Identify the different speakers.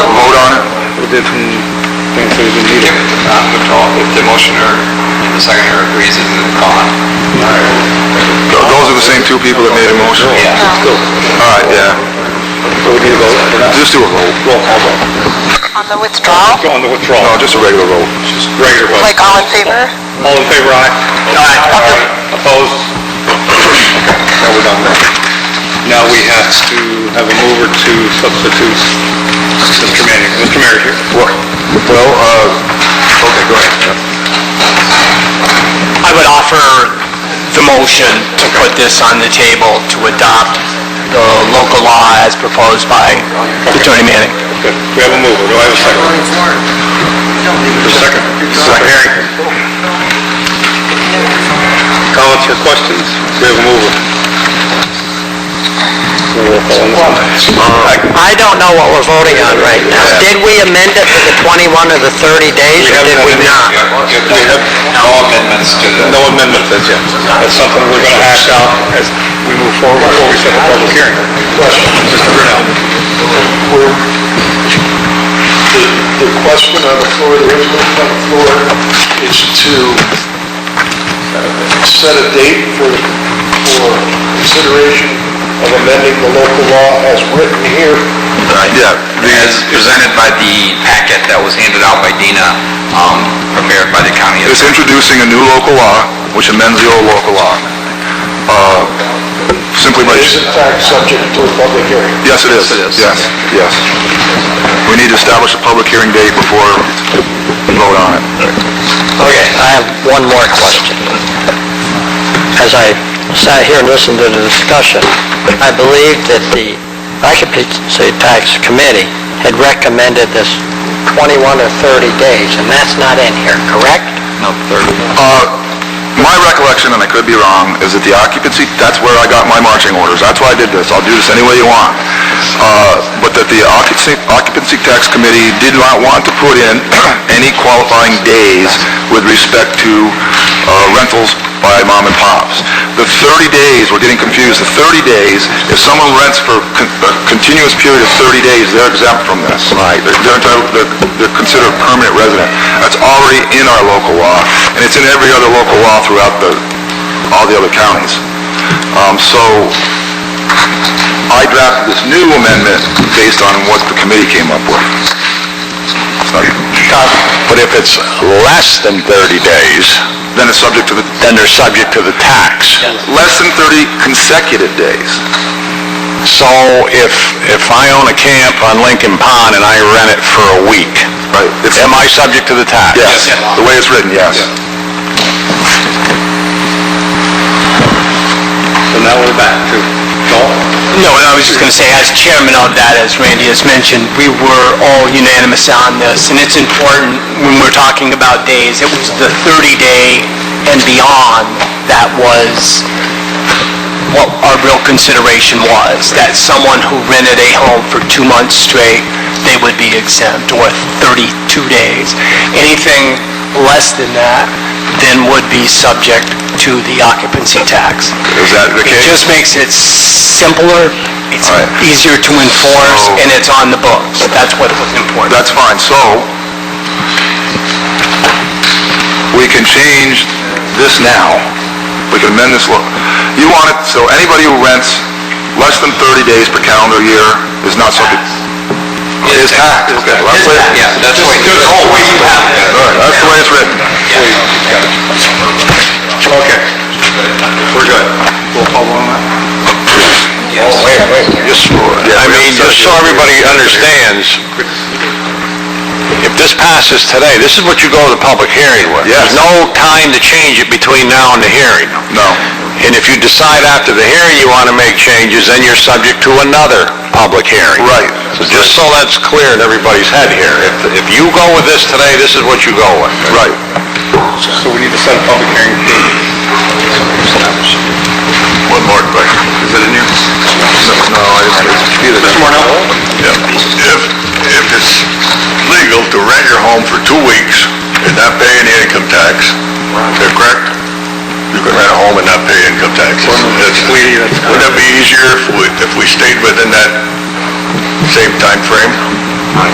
Speaker 1: different things that have been needed.
Speaker 2: Uh, move to all, if the motioner and the seconder agrees, it move on.
Speaker 3: Those are the same two people that made a motion?
Speaker 2: Yeah.
Speaker 3: All right, yeah.
Speaker 1: So we need a vote for that?
Speaker 3: Just do a roll.
Speaker 1: Roll call vote.
Speaker 4: On the withdrawal?
Speaker 1: Go On the
Speaker 3: No,
Speaker 1: withdrawal.
Speaker 3: just a regular roll.
Speaker 1: Regular vote.
Speaker 4: Like all in favor?
Speaker 1: All in favor, aye? Aye. Opposed? Now we're done there. Now we have to have a mover to substitute Mr. Manning. Mr. Mayor here.
Speaker 3: Well, well, uh, okay, go ahead.
Speaker 5: I would offer the motion to put this on the table to adopt the local law as proposed by Attorney Manning.
Speaker 1: Good. We have a mover. Do I have a second? Second. Second. Herring. Comments or questions? We have a mover. Roll call on this one.
Speaker 6: I don't know what we're voting on right now. Did we amend it to the 21 or the 30 days, or did we not?
Speaker 2: We have no amendments to the...
Speaker 1: No amendments as yet. That's something we're gonna hash out as we move forward before we set the public hearing. Question. Mr. Brunel.
Speaker 7: The, the question on the floor, the resolution on the floor is to uh, set a date for, for consideration of amending the local law as written here.
Speaker 3: Yeah,
Speaker 2: As presented by the packet that was handed out by Dina, um, prepared by the county
Speaker 3: It's
Speaker 2: attorney.
Speaker 3: introducing a new local law, which amends the old local law. Uh, Simply by...
Speaker 7: It is in fact subject to a public hearing.
Speaker 3: Yes, it is.
Speaker 2: Yes, it is.
Speaker 3: Yes, yes. We need to establish a public hearing date before we vote on it.
Speaker 6: Okay, I have one more question. As I sat here and listened to the discussion, I believe that the Occupancy Tax Committee had recommended this 21 or 30 days, and that's not in here, correct?
Speaker 2: No, third.
Speaker 3: Uh, My recollection, and I could be wrong, is that the occupancy, that's where I got my marching orders. That's why I did this. I'll do this any way you want. Uh, But that the occupancy occupancy tax committee did not want to put in any qualifying days with respect to uh, rentals by mom and pops. The 30 days, we're getting confused, the 30 days, if someone rents for con- a continuous period of 30 days, they're exempt from this. Right. They're entitled, they're they're considered a permanent resident. That's already in our local law, and it's in every other local law throughout the, all the other counties. Um, So I drafted this new amendment based on what the committee came up with. But if it's less than 30 days... Then it's subject to the... Then they're subject to the tax. Less than 30 consecutive days. So if, if I own a camp on Lincoln Pond and I rent it for a week, am I subject to the tax? Yes, the way it's written, yes.
Speaker 1: So now we're back to Joel.
Speaker 5: No, and I was just going to say, as chairman of that, as Randy has mentioned, we were all unanimous on this, and it's important when we're talking about days, it was the 30-day and beyond that was what our real consideration was, that someone who rented a home for two months straight, they would be exempt, or 32 days. Anything less than that then would be subject to the occupancy tax.
Speaker 3: Is that the
Speaker 5: It
Speaker 3: case?
Speaker 5: just makes it simpler, it's
Speaker 3: All right. Oh.
Speaker 5: easier to enforce,
Speaker 3: So-
Speaker 5: and it's on the books. That's what was important.
Speaker 3: That's fine, so we can change this now. We can amend this law. You want it, so anybody who rents less than 30 days per calendar year is not subject... Is taxed, okay. well, that's the way-
Speaker 2: Yeah, that's the way.
Speaker 3: That's the way you have it. All right, that's the way it's written. Okay. We're good.
Speaker 1: Roll call on that.
Speaker 3: Yes, Lord. I mean, just so everybody understands,
Speaker 8: If this passes today, this is what you go to the public hearing with.
Speaker 3: Yes.
Speaker 8: There's no time to change it between now and the hearing.
Speaker 3: No.
Speaker 8: And if you decide after the hearing you want to make changes, then you're subject to another public hearing.
Speaker 3: Right.
Speaker 8: So just so that's clear in everybody's head here, if, if you go with this today, this is what you go with.
Speaker 3: Right.
Speaker 1: So we need to set a public hearing date.
Speaker 3: One more question. Is it in here? No, no, I didn't.
Speaker 1: Mr. Marnell?
Speaker 3: If, if it's legal to rent your home for two weeks and not pay any income tax, is that correct? You can rent a home and not pay income taxes. That's-
Speaker 1: Sweetie, that's correct.
Speaker 3: Wouldn't that be easier if we, if we stayed within that same time frame?